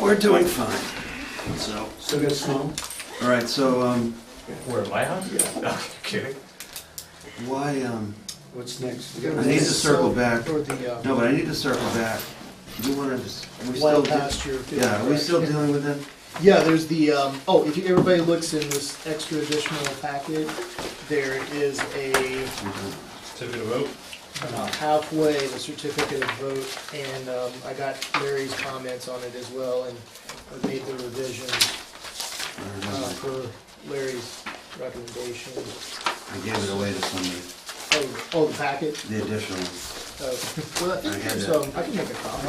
We're doing fine. So, Still got snow? all right, so um, Where, my house? Yeah. No, kidding. why, um, What's next? I need to circle back. Or the, no, uh, but I need to circle back. You wanted to, we still, wild de- pasture. field, yeah, are we correct? still dealing with that? Yeah, there's the, um, oh, if you- everybody looks in this extra additional packet, there is a Certificate of vote? uh, halfway, the certificate of vote, and um, I got Larry's comments on it as well, and I made the revision uh, for Larry's recommendation. I gave it away to somebody, Oh, oh, the packet? the additional. Oh, I had So I can make a copy.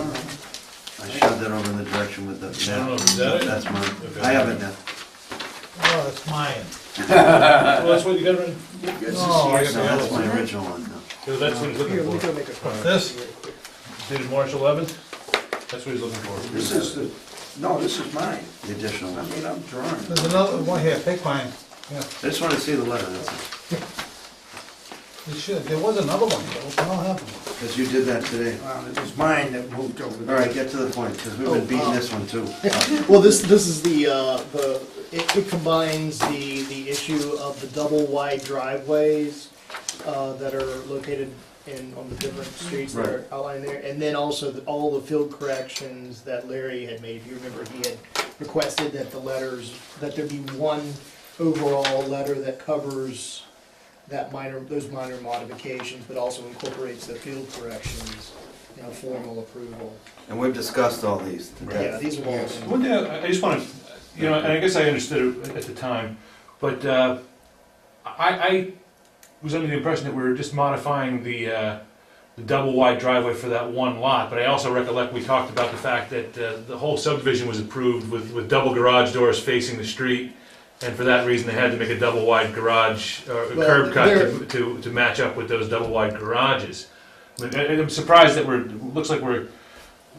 I shoved that over in the direction with the I don't know, map. is that it? That's mine. Okay. I have it now. Oh, that's mine. Well, that's what you got, No, I No, that's my original one, no. because that's what he's Here, let me looking for. go make a copy. This? real quick. Dated March eleventh? That's what he's looking for. This is the, no, this is mine. The additional I one. mean, I'm drawing. There's another one here, take mine. Yeah, I just want to see the letter, that's it. you should, there was another one, but I don't have one. Because you did that today. Um, It was mine that moved over All there. right, get to the point, because we've Oh, been beating um, this one too. Well, this, this is the, uh, the, it, it combines the, the issue of the double wide driveways, uh, that are located in, on the different streets that are Right. outlined there, and then also the- all the field corrections that Larry had made. If you remember, he had requested that the letters, that there be one overall letter that covers that minor, those minor modifications, but also incorporates the field corrections in a formal approval. And we've discussed all these to Yeah, death. these are all. One thing, I I just want to, you know, and I guess I understood it at the time, but uh, I, I was under the impression that we were just modifying the, uh, the double wide driveway for that one lot, but I also recollect we talked about the fact that uh, the whole subdivision was approved with, with double garage doors facing the street, and for that reason, they had to make a double wide garage, or a Well, curb cut there- to, to, to match up with those double wide garages. And and I'm surprised that we're, looks like we're,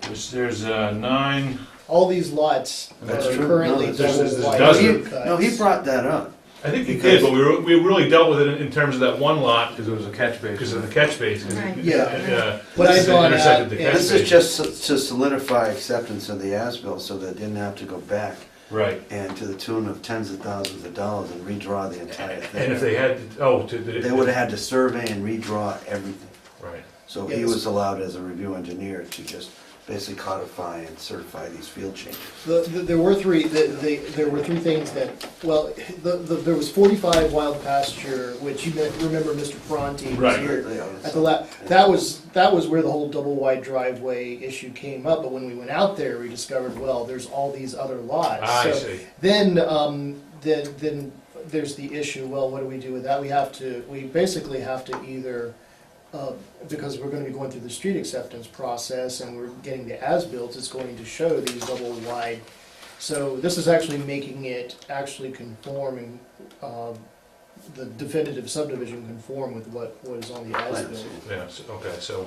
there's, there's uh, nine, all these lots that That's are true. currently No, there's- double there's- there's wide. dozens. curb cuts. No, he brought that up. I think we Because- did, but we, were- we really dealt with it in- in terms of that one lot Because it was a catch basin. because of the catch basin. Right. Yeah. But But I thought, uh, intersected the catch yeah. This is basin. just so- to solidify acceptance of the as-built, so they didn't have to go back Right, and to the tune of tens of thousands of dollars and redraw the entire and thing. if they had, to- oh, to. They would have had to survey and redraw everything. Right, So he Yes. was allowed as a review engineer to just basically codify and certify these field changes. The, the, there were three. The, the, there were three things that. Well, the, the, there was 45 wild pasture, which you met, remember, Mr. Bronte was Right. here Yeah, at the la- That was that was where the whole double wide driveway issue came up. But when we went out there, we discovered well, there's all these other lots. Ah, I So see, Then, um, then, then there's the issue, well, what do we do with that? We have to, we basically have to either, uh, because we're gonna be going through the street acceptance process and we're getting the as-built, it's going to show these double wide. So this is actually making it actually conform and, um, the definitive subdivision conform with what was on the as-built. yeah, so- okay, so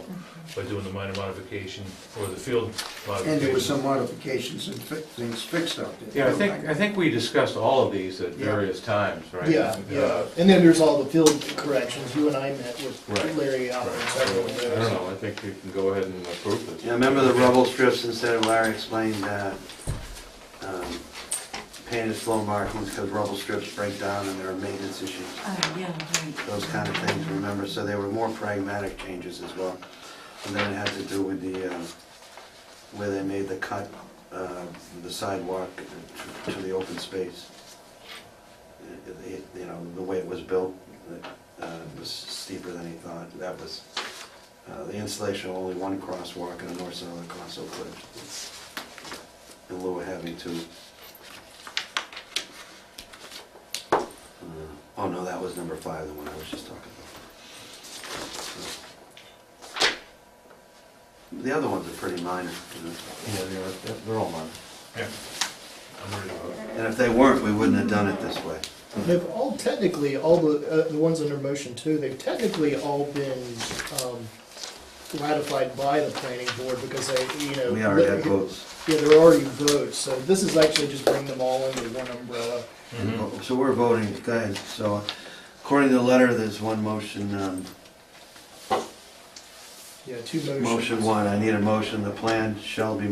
by doing the minor modification or the field And there were modification. some modifications and fi- things fixed out there. Oh Yeah, I think, I think we discussed all of these at various times, right? Uh, Yeah, yeah, and then there's all the field corrections, you and I met with Right. Larry out and several of I those. don't know, I think we can go ahead and approve this. Yeah, remember the rubble strips instead of Larry explained that um, painted flow markings because rubble strips break down and there are maintenance issues, Oh, yeah, right. those kind of things, remember? So they were more pragmatic changes as well. And then it had to do with the, uh, where they made the cut, uh, the sidewalk to- to the open space. It- it- You know, the way it was built, uh, it was steeper than he thought, that was, uh, the installation of only one crosswalk and a north-south crossover bridge. In lieu of having to. Uh, Oh, no, that was number five, the one I was just talking about. The other ones are pretty minor, you know. Yeah, they're, they're all mine. Yeah. I'm worried about it. And if they weren't, we wouldn't have done it this way. They've all technically, all the, uh, the ones under motion two, they've technically all been, um, ratified by the planning board because they, you know. We already had votes. Yeah, there are already votes, so this is actually just bring them all under one umbrella. Mm-hmm. Mm-hmm. So we're voting, go ahead. So according to the letter, there's one motion, um, Yeah, two motions. motion one, I need a motion, the plan shall be